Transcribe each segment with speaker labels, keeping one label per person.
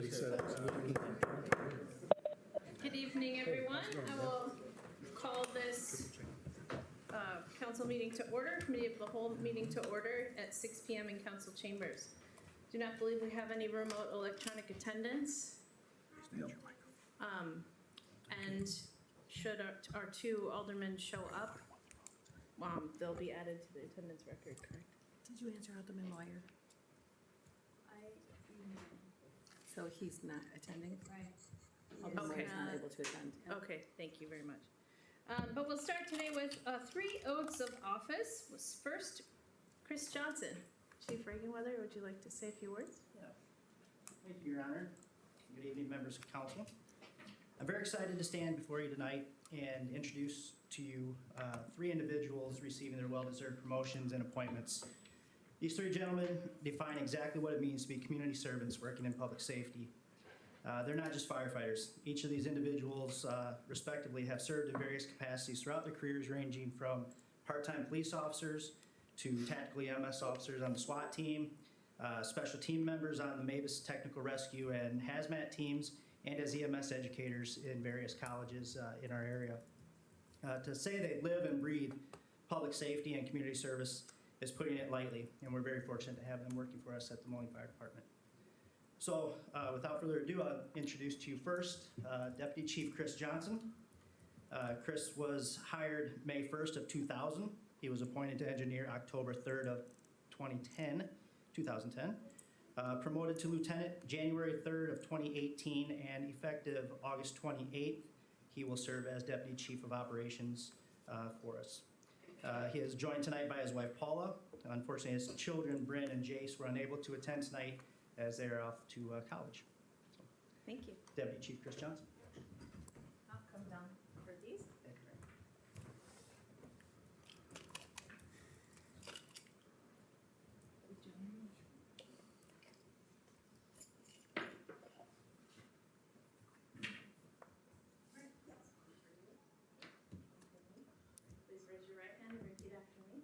Speaker 1: He said,
Speaker 2: Good evening, everyone. I will call this uh, council meeting to order, committee of the whole meeting to order at 6 PM in council chambers. Do not believe we have any remote electronic attendance. Um, And should our- our two aldermen show up, um, they'll be added to the attendance record, correct?
Speaker 3: Did you answer Alderman Moyer? So he's not attending?
Speaker 4: Right.
Speaker 3: Alderman Moyer's not
Speaker 2: Okay.
Speaker 3: able to attend.
Speaker 2: Okay, thank you very much. Um, But we'll start today with uh, three oaths of office. Was First, Chris Johnson. Chief Reaganweather, would you like to say a few words?
Speaker 5: Thank you, Your Honor. Good evening, members of council. I'm very excited to stand before you tonight and introduce to you uh, three individuals receiving their well-deserved promotions and appointments. These three gentlemen define exactly what it means to be community servants working in public safety. Uh, They're not just firefighters. Each of these individuals uh, respectively have served in various capacities throughout their careers ranging from part-time police officers to tactically MS officers on the SWAT team, uh, special team members on the Mavis Technical Rescue and hazmat teams, and as EMS educators in various colleges uh, in our area. Uh, to say they live and breathe public safety and community service is putting it lightly, and we're very fortunate to have them working for us at the Moline Fire Department. So, uh, without further ado, I'll introduce to you first uh, Deputy Chief Chris Johnson. Uh, Chris was hired May 1st of 2000. He was appointed to engineer October 3rd of 2010. 2010. Uh, Promoted to lieutenant January 3rd of 2018, and effective August 28th, he will serve as deputy chief of operations uh, for us. Uh, He is joined tonight by his wife Paula. Unfortunately, his children, Bryn and Jace, were unable to attend tonight as they are off to uh, college.
Speaker 2: Thank you.
Speaker 5: Deputy Chief Chris Johnson.
Speaker 2: I'll come down for these.
Speaker 5: Thank you.
Speaker 2: Please raise your right hand and repeat after me.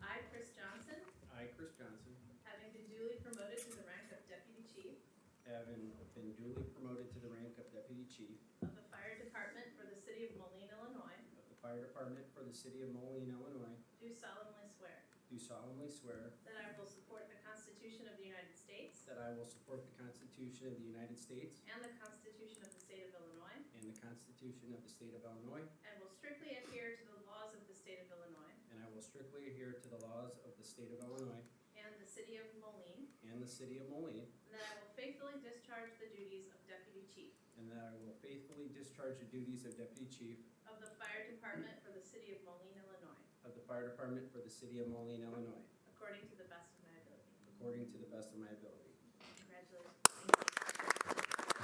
Speaker 2: I, Chris Johnson,
Speaker 6: I, Chris Johnson,
Speaker 2: having been duly promoted to the rank of deputy chief
Speaker 6: having been duly promoted to the rank of Deputy Chief
Speaker 2: of the fire department for the city of Moline, Illinois,
Speaker 6: of the Fire Department for the City of Moline, Illinois,
Speaker 2: do solemnly swear
Speaker 6: do solemnly swear
Speaker 2: that I will support the Constitution of the United States
Speaker 6: that I will support the Constitution of the United States
Speaker 2: and the Constitution of the state of Illinois,
Speaker 6: and the Constitution of the State of Illinois,
Speaker 2: and will strictly adhere to the laws of the state of Illinois
Speaker 6: and I will strictly adhere to the laws of the State of Illinois
Speaker 2: and the city of Moline,
Speaker 6: and the City of Moline,
Speaker 2: and that I will faithfully discharge the duties of deputy chief
Speaker 6: and that I will faithfully discharge the duties of Deputy Chief
Speaker 2: of the fire department for the city of Moline, Illinois,
Speaker 6: of the Fire Department for the City of Moline, Illinois,
Speaker 2: according to the best of my ability.
Speaker 6: according to the best of my ability.
Speaker 2: Congratulations. Thank you.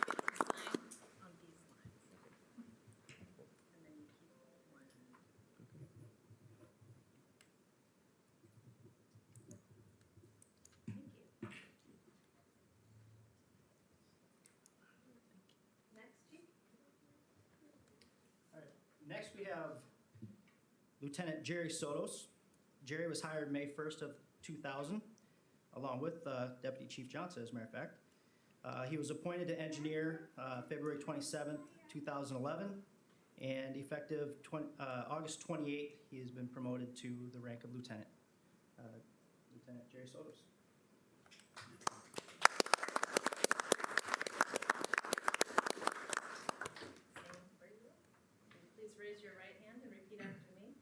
Speaker 2: On these lines. And then you keep one. Thank you. Next, Chief?
Speaker 5: Next, we have Lieutenant Jerry Sotos. Jerry was hired May 1st of 2000, along with uh, Deputy Chief Johnson, as a matter of fact. Uh, He was appointed to engineer uh, February 27th, 2011, and effective 20 uh, August 28th, he has been promoted to the rank of lieutenant. Uh, Lieutenant Jerry Sotos.
Speaker 2: Please raise your right hand and repeat after me.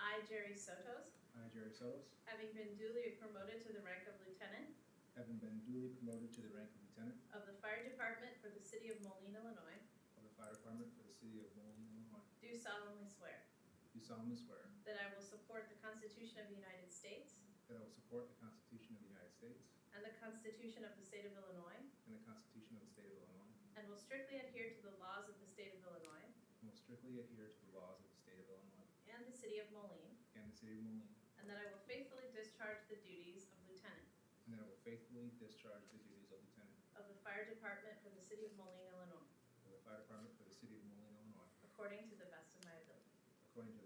Speaker 2: I, Jerry Sotos,
Speaker 7: I, Jerry Sotos,
Speaker 2: having been duly promoted to the rank of lieutenant
Speaker 7: having been duly promoted to the rank of lieutenant
Speaker 2: of the fire department for the city of Moline, Illinois,
Speaker 7: of the fire department for the city of Moline, Illinois,
Speaker 2: do solemnly swear
Speaker 7: do solemnly swear
Speaker 2: that I will support the Constitution of the United States
Speaker 7: that I will support the Constitution of the United States
Speaker 2: and the Constitution of the state of Illinois,
Speaker 7: and the Constitution of the state of Illinois,
Speaker 2: and will strictly adhere to the laws of the state of Illinois
Speaker 7: and will strictly adhere to the laws of the state of Illinois
Speaker 2: and the city of Moline,
Speaker 7: and the city of Moline,
Speaker 2: and that I will faithfully discharge the duties of lieutenant
Speaker 7: and that I will faithfully discharge the duties of lieutenant
Speaker 2: of the fire department for the city of Moline, Illinois,
Speaker 7: of the fire department for the city of Moline, Illinois,
Speaker 2: according to the best of my ability.
Speaker 7: according to the